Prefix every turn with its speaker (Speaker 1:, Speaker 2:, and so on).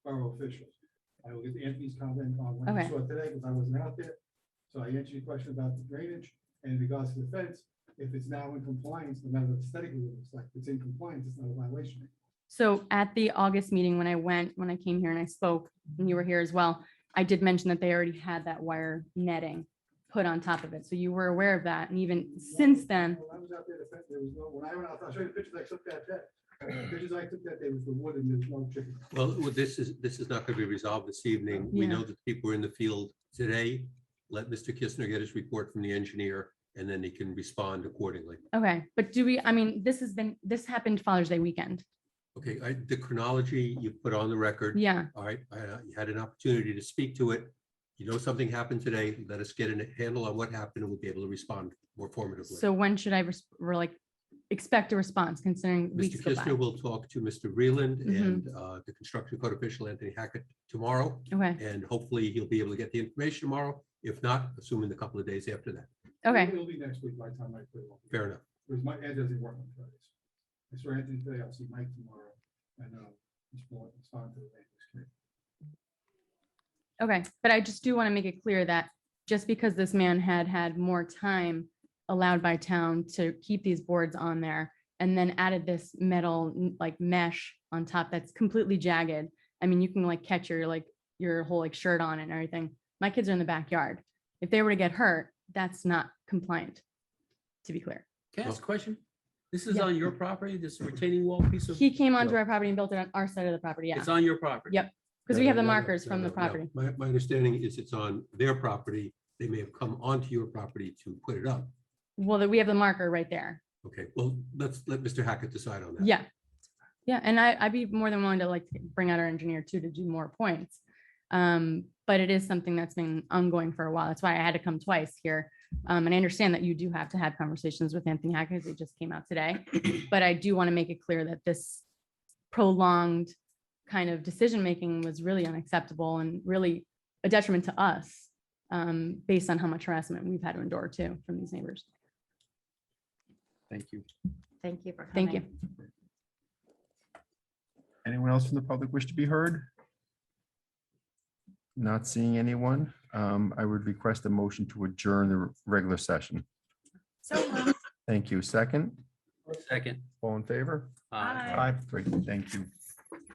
Speaker 1: officials. I will get Anthony's comment on when
Speaker 2: Okay.
Speaker 1: you saw it today, because I wasn't out there. So I answered your question about the drainage and in regards to the fence, if it's now in compliance, no matter what aesthetically it looks like, if it's in compliance, it's not a violation.
Speaker 2: So at the August meeting, when I went, when I came here and I spoke, and you were here as well, I did mention that they already had that wire netting put on top of it. So you were aware of that. And even since then,
Speaker 1: When I was out there, the fence, there was no, when I went out, I'll show you the pictures I took that day. The Pictures I took that day was the wood and there's no chicken.
Speaker 3: Well, this is, this is not going to be resolved this evening. We
Speaker 2: Yeah.
Speaker 3: know that people are in the field today. Let Mr. Kistner get his report from the engineer and then he can respond accordingly.
Speaker 2: okay, but do we, I mean, this has been, this happened Father's Day weekend.
Speaker 3: Okay, I, the chronology you put on the record,
Speaker 2: Yeah,
Speaker 3: all right, I uh, you had an opportunity to speak to it. You know something happened today. Let us get a handle on what happened and we'll be able to respond more formatively.
Speaker 2: so when should I, res- or like, expect a response considering weeks
Speaker 3: Mr.
Speaker 2: go by?
Speaker 3: Kistner will talk to Mr. Reland
Speaker 2: Mhm.
Speaker 3: and uh, the construction code official Anthony Hackett tomorrow.
Speaker 2: Okay,
Speaker 3: And hopefully he'll be able to get the information tomorrow. If not, assuming the couple of days after that.
Speaker 2: okay,
Speaker 1: It'll be next week by the time I put it on.
Speaker 3: Fair enough.
Speaker 1: Because my, Ed doesn't work on Fridays. I saw Anthony today, I'll see Mike tomorrow, and, uh, he's more, he's on to the land use committee.
Speaker 2: okay. But I just do want to make it clear that just because this man had had more time allowed by town to keep these boards on there and then added this metal n- like mesh on top that's completely jagged. I mean, you can like catch your like your whole like shirt on it and everything. My kids are in the backyard. If they were to get hurt, that's not compliant, to be clear.
Speaker 4: Can I ask a question? This is
Speaker 2: Yeah.
Speaker 4: on your property, this retaining wall piece of,
Speaker 2: He came onto our property and built it on our side of the property, yeah,
Speaker 4: it's on your property?
Speaker 2: Yep. because we
Speaker 3: No,
Speaker 2: have
Speaker 3: no,
Speaker 2: the
Speaker 3: no, no,
Speaker 2: markers
Speaker 3: no,
Speaker 2: from the
Speaker 3: no, no.
Speaker 2: property.
Speaker 3: My, my understanding is it's on their property. They may have come onto your property to put it up.
Speaker 2: Well, that we have the marker right there.
Speaker 3: Okay, well, let's let Mr. Hackett decide on that.
Speaker 2: Yeah. Yeah, and I, I'd be more than willing to like bring out our engineer too to do more points. Um, but it is something that's been ongoing for a while. That's why I had to come twice here. Um, and I understand that you do have to have conversations with Anthony Hackett, 'cause it just came out today. But I do want to make it clear that this prolonged kind of decision-making was really unacceptable and really a detriment to us um, based on how much harassment we've had to endure too from these neighbors.
Speaker 5: Thank you.
Speaker 6: Thank you for coming.
Speaker 2: Thank you.
Speaker 5: Anyone else from the public wish to be heard? Not seeing anyone. Um, I would request a motion to adjourn the regular session.
Speaker 6: So moved.
Speaker 5: Thank you. Second,
Speaker 4: Second. Uh,
Speaker 5: all in favor?
Speaker 4: Aye.
Speaker 6: Bye.
Speaker 5: Aye. Great, thank you.